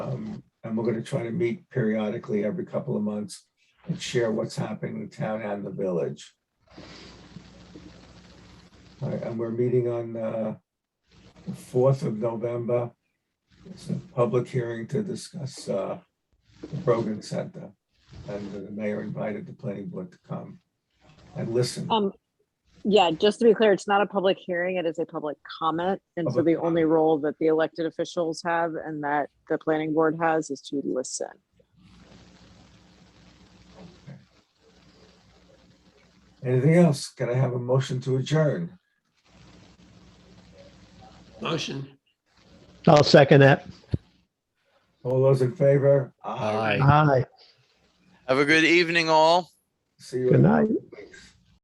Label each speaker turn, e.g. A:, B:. A: Um, And we're going to try to meet periodically every couple of months and share what's happening in the town and the village. All right, And we're meeting on uh, the 4th of November. It's a public hearing to discuss uh, the Brogan Center. And the mayor invited the planning board to come and listen.
B: Um, yeah, just to be clear, it's not a public hearing, it is a public comment. And so
A: Public
B: the only role that the elected officials have and that the planning board has is to listen.
A: Anything else? Can I have a motion to adjourn?
C: Motion.
D: I'll second that.
A: All those in favor?
C: Aye.
D: Aye.
E: Have a good evening, all.
A: See you.
D: Good
A: in-
D: night.